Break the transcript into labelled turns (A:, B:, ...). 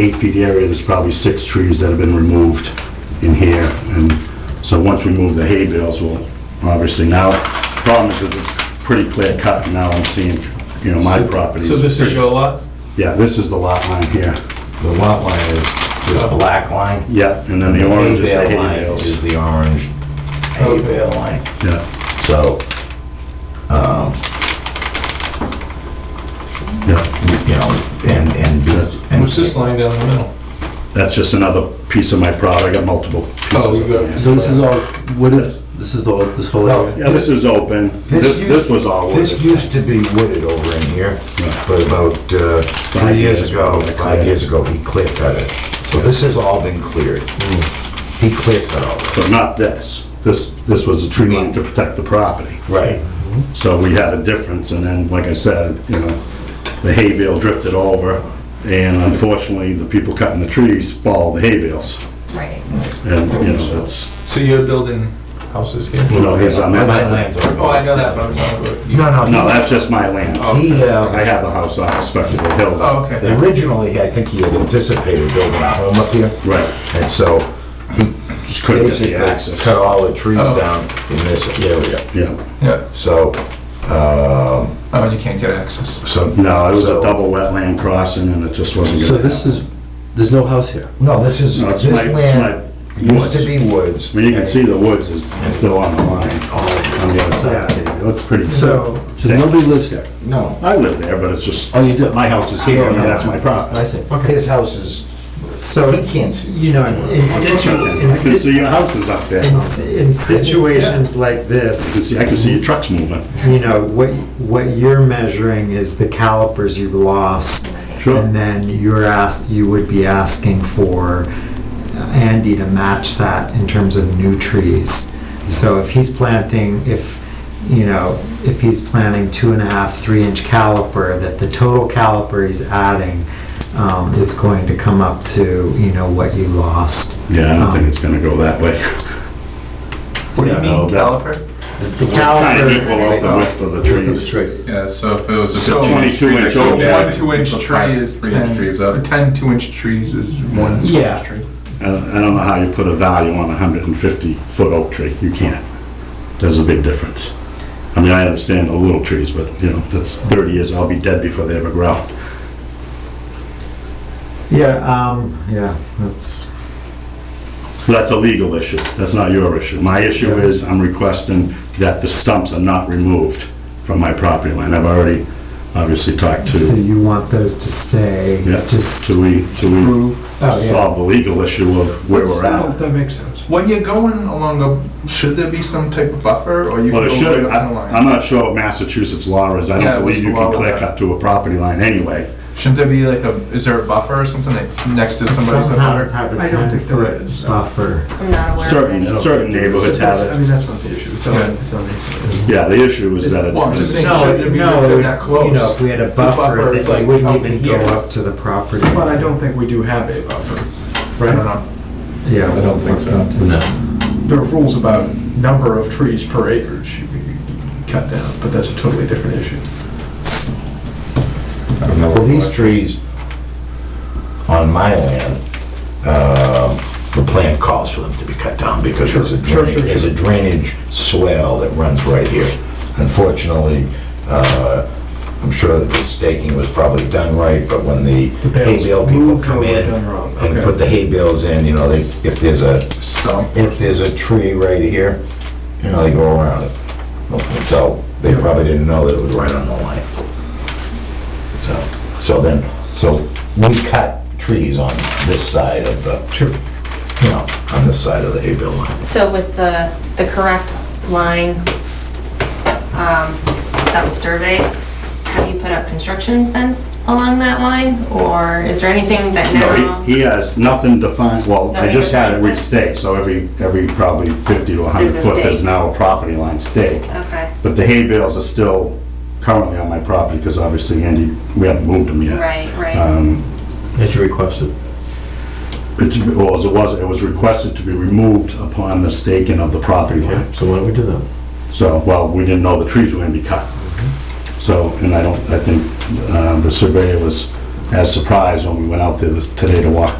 A: eight feet area, there's probably six trees that have been removed in here. And so once we move the hay bales, we'll, obviously now, problem is that it's pretty clear cut and now I'm seeing, you know, my property.
B: So this is your lot?
A: Yeah, this is the lot line here.
C: The lot line is, is a black line.
A: Yeah, and then the
C: hay
A: orange is the
C: bale
A: hay
C: line
A: bales.
C: Is the orange hay bale line.
A: Yeah,
C: So,
A: yeah.
C: you know, and, and. and-
B: What's this line down the middle?
A: That's just another piece of my product. I got multiple pieces.
B: Oh, you
A: of
B: got-
A: it.
D: So this is all, what is, this is all, this whole area?
A: Yeah, this is open. This,
C: used-
A: this was all
C: This
A: wooded.
C: used to be wooded over in here,
A: Yeah.
C: but about uh,
A: Five
C: three years
A: years
C: ago,
A: ago, they cleared
C: five
A: it.
C: years ago, he clear cut it. So this has all been cleared.
A: Hmm.
C: He clear cut all of it.
A: But not this. This, this was a tree line to protect the property.
C: Right.
A: So we had a difference and then, like I said, you know, the hay bale drifted over and unfortunately, the people cutting the trees followed the hay bales.
E: Right.
A: And, you know, it's,
B: So you're building houses here?
A: you know, here's on
C: My
A: that.
C: land's already-
B: Oh, I know that, but I'm talking about. you.
C: No,
A: No,
C: no,
A: that's just my land.
C: he,
A: I
C: uh,
A: have a house off Spectacle Hill.
B: Oh, okay.
C: originally, I think he had anticipated building a home up here.
A: Right,
C: And so he
A: just couldn't get
C: basically
A: the access.
C: cut all the trees
B: Oh.
C: down in this area.
A: Yeah,
B: Yeah,
C: So,
B: oh, and you can't get access.
C: so.
A: no, it was a
C: so-
A: double wetland crossing and it just wasn't
D: So
A: gonna
D: this
A: happen.
D: is, there's no house here.
C: No, this is,
A: No, it's my-
C: this
A: it's
C: land
A: my
C: used to
A: woods.
C: be woods.
A: I mean, you can see the woods is still on the line, on the other side. It looks pretty good.
C: So,
D: So nobody lives here.
C: no,
A: I live there, but it's just,
D: Oh, you do?
A: my house is here, I mean, that's my property.
D: I see.
C: his house is,
F: So,
C: he can't see.
F: you know, in situ,
A: I
F: in
A: can
F: si-
A: see your houses up there. I
F: in s- in situations like
A: can
F: this,
A: see- I can see your trucks moving.
F: you know, what, what you're measuring is the calipers you've lost.
A: Sure.
F: And then you're asked, you would be asking for uh, Andy to match that in terms of new trees. So if he's planting, if, you know, if he's planting two and a half, three inch caliper, that the total caliper he's adding um, is going to come up to, you know, what you lost.
A: Yeah, I don't think it's gonna go that way.
B: What do you
A: Yeah,
B: mean
A: no, that-
B: caliper?
F: The
A: Trying to
F: caliper.
A: equal out the width of the trees.
G: Yeah, so if it was a
B: So-
G: 15 inch tree,
A: 22 inch
G: so
A: oak.
B: One
A: Yeah,
B: two-inch tree is
G: Three inch trees
B: ten,
G: up.
B: ten two-inch trees is one
F: Yeah.
B: two-inch tree.
A: I don't I don't know how you put a value on a hundred and fifty foot oak tree, you can't. There's a big difference. I mean, I understand the little trees, but, you know, that's thirty years, I'll be dead before they ever grow.
F: Yeah, um, yeah, that's,
A: That's a legal issue, that's not your issue. My issue is, I'm requesting that the stumps are not removed from my property line. I've already obviously talked
F: so
A: to,
F: you want those to stay,
A: yeah,
F: just.
A: to we, to we
F: Oh, yeah.
A: solve the legal issue of where we're at.
B: That makes sense. When you're going along a, should there be some type of buffer, or you
A: Well,
B: can
A: it
B: go
A: should,
B: right up to the
A: I- I'm
B: line?
A: not sure what Massachusetts law is, I
B: Yeah,
A: don't believe
B: what's
A: you
B: the law
A: can
B: with
A: clear
B: that?
A: cut to a property line anyway.
B: Shouldn't there be like a, is there a buffer or something that next to somebody's? butter?
F: Some towns have a
H: I don't
F: ten
H: think there is.
F: foot buffer.
E: I'm not aware of
A: Certain,
E: any.
A: certain neighborhoods have
H: I
A: it.
H: mean, that's not the issue, it's on,
B: Yeah.
H: it's on the inside.
A: Yeah, the issue is that
B: Well, I'm just
A: it's,
B: saying-
A: been-
B: No, shouldn't it be
F: no,
B: they're
F: it-
B: that
F: You know,
B: close?
F: if we had a
B: buffer
F: buffer,
B: is
F: then
B: like
F: we wouldn't
B: up
F: even go
B: here.
F: up to the property.
H: But I don't think we do have a buffer.
B: I don't know.
F: Yeah.
G: I don't think so.
H: There are rules about number of trees per acre should be cut down, but that's a totally different issue.
C: Well, these trees on my land, uh, the plan calls for them to be cut down because there's a
H: Sure, sure,
C: drainage,
H: sure,
C: there's a drainage swale that runs right here. Unfortunately, uh, I'm sure that the staking was probably done right, but when the
H: The bales
C: hay bale people
H: moved
C: come
H: or were
C: in
H: done wrong,
C: and
H: okay.
C: put the hay bales in, you know, they, if there's a,
B: Stump.
C: if there's a tree right here, you know, they go around it. And so they probably didn't know that it was right on the line. So, so then, so we cut trees on this side of the,
H: Sure.
C: you know, on this side of the hay bale line.
E: So with the, the correct line, um, that was surveyed, have you put up construction fence along that line? Or is there anything that
A: no,
E: now?
A: he, he has nothing defined, well, I
E: Nothing
A: just had it
E: defined.
A: restaked, so every, every probably fifty to hundred
E: There's a
A: foot, there's
E: stake. Oh.
A: now a property line stake.
E: Okay,
A: But the hay bales are still currently on my property, because obviously Andy, we haven't moved them yet.
E: right, right.
A: Um,
D: That you requested.
A: it's, well, as it was, it was requested to be removed upon the staking of the property line.
D: So why don't we do that?
A: So, well, we didn't know the trees were gonna be cut. So, and I don't, I think uh, the surveyor was as surprised when we went out there this- today to walk the